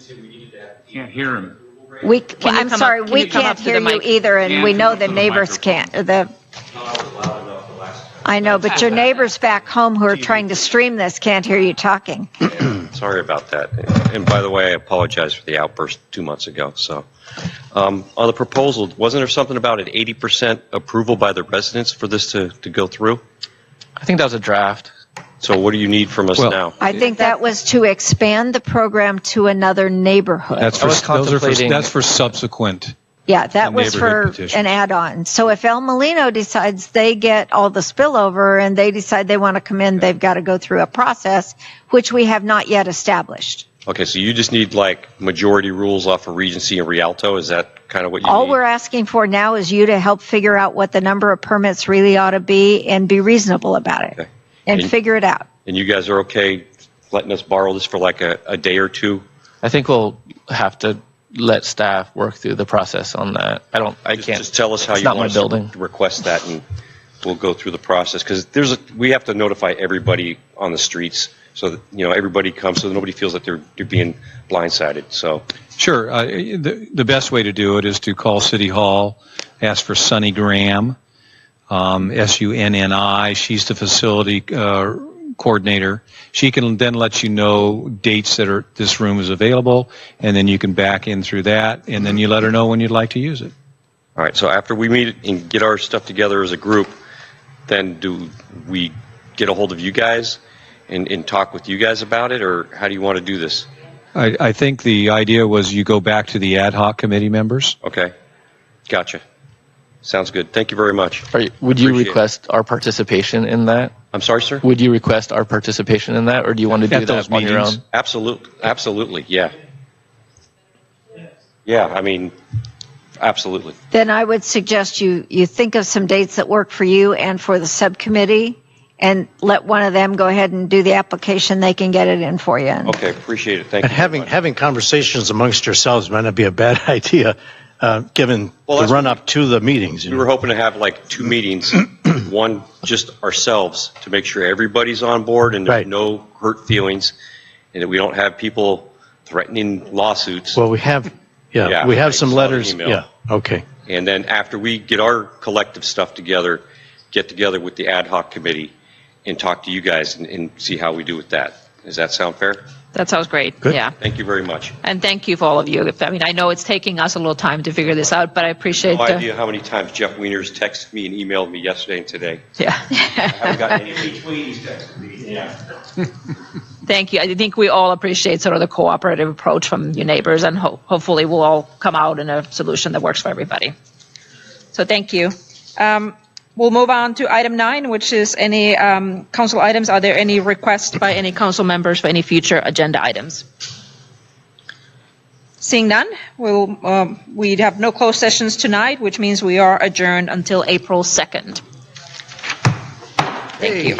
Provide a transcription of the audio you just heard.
too, we needed that. Can't hear him. We, c- Can you I'm come up- sorry, can we you come can't up to the hear you mic? either, and Yeah, we come know up the to the neighbors microphone. can't, the, Not all loud enough the last time. I know, but your neighbors back home who are trying to stream this can't hear you talking. Sorry about that. And by the way, I apologize for the outburst two months ago. So, um, on the proposal, wasn't there something about an 80% approval by the residents for this to, to go through? I think that was a draft. So, what do you need from us Well, now? I think that was to expand the program to another neighborhood. That's for, I was those are for, contemplating- that's for subsequent. Yeah, that was neighborhood for petition. an add-on. So if El Molino decides they get all the spillover and they decide they want to come in, they've got to go through a process, which we have not yet established. Okay, so you just need like majority rules off of Regency and Rialto. Is that kind of what you All need? we're asking for now is you to help figure out what the number of permits really ought to be and be reasonable about it Okay. and And- figure it out. and you guys are okay letting us borrow this for like a, a day or two? I think we'll have to let staff work through the process on that. I don't. I Just- can't. Just tell us how it's you not want my us building. to request that, and we'll go through the process. Because there's, a, we have to notify everybody on the streets, so that, you know, everybody comes, so that nobody feels that they're, they're being blindsided, so. Sure. Uh, the, the best way to do it is to call City Hall, ask for Sunny Graham, um, S U N N I. She's the facility uh, coordinator. She can then let you know dates that are this room is available, and then you can back in through that, and then you let her know when you'd like to use it. All right, so after we meet and get our stuff together as a group, then do we get a hold of you guys and, and talk with you guys about it, or how do you want to do this? I, I think the idea was you go back to the ad hoc committee members. Okay, gotcha. Sounds good. Thank you very much. Are you, would you Appreciate it. request our participation in that? I'm sorry, sir? Would you request our participation in that, or do you want to do that At those on your meetings. own? Absolutely, absolutely, yeah. Yeah, I mean, absolutely. Then I would suggest you, you think of some dates that work for you and for the subcommittee and let one of them go ahead and do the application. They can get it in for you. And Okay, appreciate it, thank you. And very having, much. having conversations amongst yourselves might not be a bad idea, uh, given Well, the that's- run up to the meetings. you We know. were hoping to have like two meetings, one just ourselves to make sure everybody's on board and there's Right. no hurt feelings and that we don't have people threatening lawsuits. Well, we have, Yeah, yeah, we I have some saw the letters. email. Yeah, okay. And then after we get our collective stuff together, get together with the ad hoc committee and talk to you guys and, and see how we do with that. Does that sound fair? That sounds great. Yeah. Thank you very much. And thank you for all of you. If- I mean, I know it's taking us a little time to figure this out, but I appreciate No the, idea how many times Jeff Wiener's texted me and emailed me yesterday and today. yeah. I haven't gotten any. Each week, he's texting me. Yeah. Thank you. I think we all appreciate sort of the cooperative approach from your neighbors and ho- hopefully we'll all come out in a solution that works for everybody. So thank you. Um, We'll move on to item nine, which is any um, council items. Are there any requests by any council members for any future agenda items? Seeing none, we'll, um, we have no closed sessions tonight, which means we are adjourned until April 2nd. Thank you.